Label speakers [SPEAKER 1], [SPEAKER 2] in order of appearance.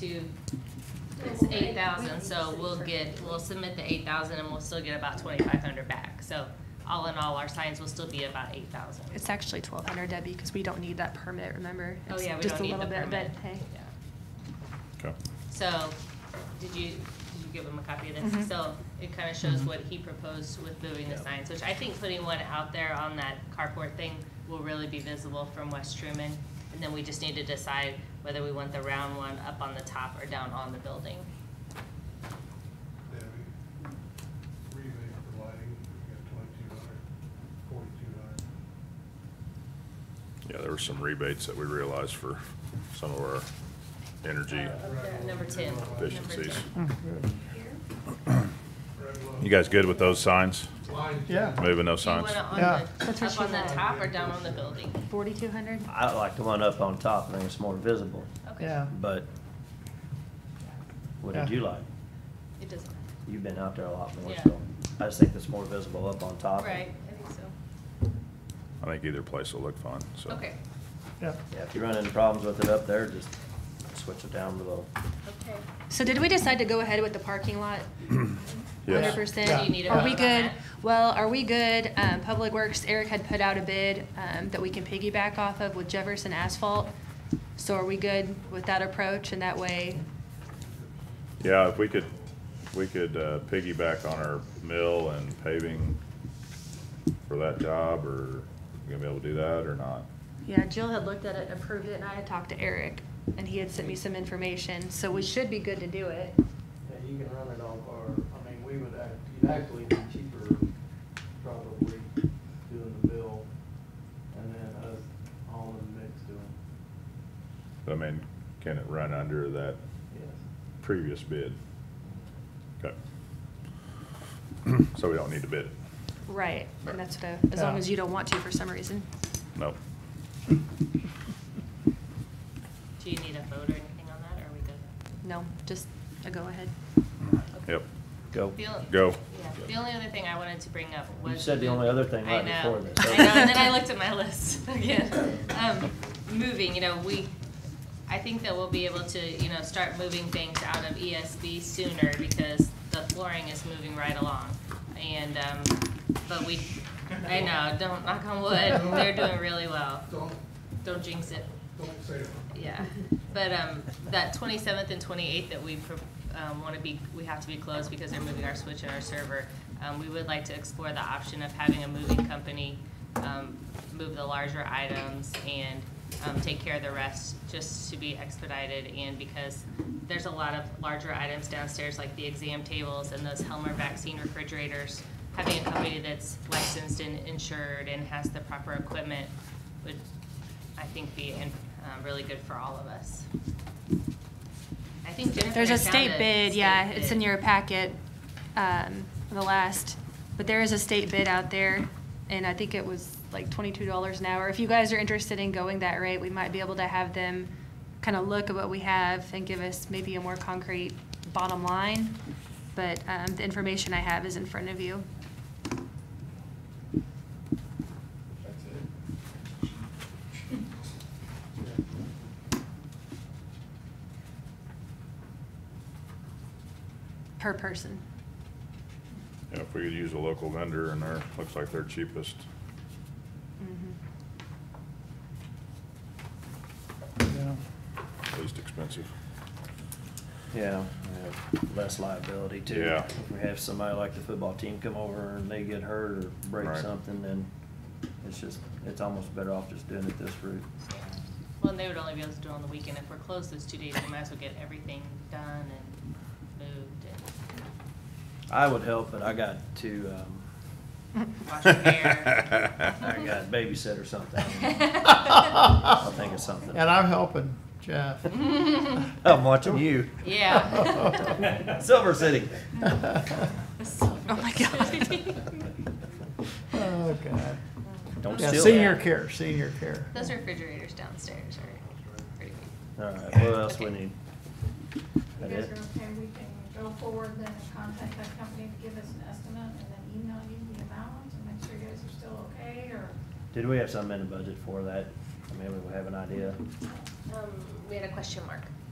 [SPEAKER 1] to, it's eight thousand, so we'll get, we'll submit the eight thousand and we'll still get about twenty-five hundred back. So all in all, our signs will still be about eight thousand.
[SPEAKER 2] It's actually twelve hundred, Debbie, because we don't need that permit, remember?
[SPEAKER 1] Oh,
[SPEAKER 2] It's
[SPEAKER 1] yeah, we
[SPEAKER 2] just
[SPEAKER 1] don't
[SPEAKER 2] a
[SPEAKER 1] need the
[SPEAKER 2] little
[SPEAKER 1] permit.
[SPEAKER 2] bit, But hey,
[SPEAKER 1] Yeah.
[SPEAKER 3] Okay.
[SPEAKER 1] So, did you, did you give him a copy of
[SPEAKER 2] Mhm.
[SPEAKER 1] this? So it kind of
[SPEAKER 2] Mm-hmm.
[SPEAKER 1] shows what he proposed with moving the signs, which I think putting one out there on that carport thing will really be visible from West Truman. And then we just need to decide whether we want the round one up on the top or down on the building.
[SPEAKER 4] Debbie, rebate for lighting, you got twenty-two hundred, forty-two hundred.
[SPEAKER 3] Yeah, there were some rebates that we realized for some of our energy.
[SPEAKER 1] Uh, Number ten.
[SPEAKER 3] Efficiencies.
[SPEAKER 4] Red low.
[SPEAKER 3] You guys good with those signs?
[SPEAKER 4] Lines.
[SPEAKER 5] Yeah.
[SPEAKER 3] Moving those
[SPEAKER 1] Do you uh,
[SPEAKER 3] signs?
[SPEAKER 1] want it on
[SPEAKER 5] Yeah.
[SPEAKER 2] That's
[SPEAKER 1] the,
[SPEAKER 2] what
[SPEAKER 1] up
[SPEAKER 2] she
[SPEAKER 1] on the
[SPEAKER 2] had.
[SPEAKER 1] top or down on the building?
[SPEAKER 2] forty-two hundred?
[SPEAKER 6] I like the one up on top, I think it's more visible,
[SPEAKER 1] Okay.
[SPEAKER 5] Yeah.
[SPEAKER 6] but what did
[SPEAKER 5] Yeah.
[SPEAKER 6] you like?
[SPEAKER 1] It doesn't,
[SPEAKER 6] You've been out there a lot more,
[SPEAKER 1] Yeah.
[SPEAKER 6] so I just think it's more visible up on top.
[SPEAKER 1] right, I think so.
[SPEAKER 3] I think either place will look fine, so.
[SPEAKER 1] Okay,
[SPEAKER 5] Yeah.
[SPEAKER 6] Yeah, if you run into problems with it up there, just switch it down below.
[SPEAKER 1] okay.
[SPEAKER 2] So did we decide to go ahead with the parking lot? Hundred
[SPEAKER 3] Yes.
[SPEAKER 2] percent.
[SPEAKER 5] Yeah. Do you need a
[SPEAKER 2] Are
[SPEAKER 1] vote
[SPEAKER 2] we
[SPEAKER 1] on
[SPEAKER 2] good?
[SPEAKER 1] that?
[SPEAKER 2] Well, are we good? Um, Public Works, Eric had put out a bid, um, that we can piggyback off of with Jefferson Asphalt. So are we good with that approach and that way?
[SPEAKER 3] Yeah, if we could, we could uh, piggyback on our mill and paving for that job, or you gonna be able to do that or not?
[SPEAKER 2] Yeah, Jill had looked at it, approved it, and I had talked to Eric, and he had sent me some information, so we should be good to do it.
[SPEAKER 7] Yeah, you can run it off our, I mean, we would act, you'd actually be cheaper probably doing the bill and then us all in the mix doing,
[SPEAKER 3] I mean, can it run under that
[SPEAKER 7] yes.
[SPEAKER 3] previous bid? Okay. So we don't need to bid it?
[SPEAKER 2] Right, and that's what, I- as long
[SPEAKER 5] Yeah.
[SPEAKER 2] as you don't want to for some reason.
[SPEAKER 3] No.
[SPEAKER 1] Do you need a vote or anything on that, or are we good?
[SPEAKER 2] No, just a go-ahead.
[SPEAKER 3] Yep,
[SPEAKER 6] Go.
[SPEAKER 1] The only-
[SPEAKER 3] go.
[SPEAKER 1] Yeah, the only other thing I wanted to bring up was.
[SPEAKER 6] You said the only other thing
[SPEAKER 1] I
[SPEAKER 6] right
[SPEAKER 1] know.
[SPEAKER 6] before this.
[SPEAKER 1] I know, and then I looked at my list again. Um, moving, you know, we, I think that we'll be able to, you know, start moving things out of ESB sooner because the flooring is moving right along. And, um, but we, I know, don't knock on wood, they're doing really well.
[SPEAKER 4] Don't,
[SPEAKER 1] Don't jinx it.
[SPEAKER 4] don't say it.
[SPEAKER 1] Yeah, but um, that twenty-seventh and twenty-eighth that we pro- um, want to be, we have to be closed because they're moving our switch and our server. Um, we would like to explore the option of having a moving company um, move the larger items and um, take care of the rest, just to be expedited and because there's a lot of larger items downstairs, like the exam tables and those Helmer vaccine refrigerators. Having a company that's licensed and insured and has the proper equipment would I think be in, um, really good for all of us. I think Jennifer
[SPEAKER 2] There's a
[SPEAKER 1] had found
[SPEAKER 2] state bid, yeah,
[SPEAKER 1] state
[SPEAKER 2] it's
[SPEAKER 1] bid.
[SPEAKER 2] in your packet, um, the last, but there is a state bid out there, and I think it was like twenty-two dollars an hour. If you guys are interested in going that rate, we might be able to have them kind of look at what we have and give us maybe a more concrete bottom line. But, um, the information I have is in front of you.
[SPEAKER 4] That's it.
[SPEAKER 2] per person.
[SPEAKER 3] Yeah, If we could use a local vendor and they're, looks like they're cheapest.
[SPEAKER 2] Mm-hmm.
[SPEAKER 5] Yeah.
[SPEAKER 3] least expensive.
[SPEAKER 6] Yeah, yeah, less liability too.
[SPEAKER 3] Yeah.
[SPEAKER 6] If we have somebody like the football team come over and they get hurt or break
[SPEAKER 3] Right.
[SPEAKER 6] something, then it's just, it's almost better off just doing it this route.
[SPEAKER 1] Well, and they would only be able to do it on the weekend. If we're closed those two days, we might as well get everything done and moved
[SPEAKER 6] I would help, but I got to, um,
[SPEAKER 1] and wash your hair.
[SPEAKER 8] Mm-hmm.
[SPEAKER 6] I got babysit or something. I'll think of something.
[SPEAKER 5] And I'm helping Jeff.
[SPEAKER 6] I'm watching you.
[SPEAKER 1] Yeah.
[SPEAKER 6] Silver City.
[SPEAKER 2] Oh my God.
[SPEAKER 5] Oh, God.
[SPEAKER 6] Don't
[SPEAKER 5] Yeah,
[SPEAKER 6] steal
[SPEAKER 5] senior
[SPEAKER 6] that.
[SPEAKER 5] care, senior care.
[SPEAKER 1] Those refrigerators downstairs are pretty big.
[SPEAKER 6] All right, what else we
[SPEAKER 1] Okay.
[SPEAKER 6] need?
[SPEAKER 8] You
[SPEAKER 6] That
[SPEAKER 8] guys
[SPEAKER 6] it?
[SPEAKER 8] are okay, we can go forward, then contact that company to give us an estimate, and then email you the amount, and make sure you guys are still okay, or?
[SPEAKER 6] Did we have something in the budget for that? I mean, we have an idea.
[SPEAKER 1] Um, we had a question mark.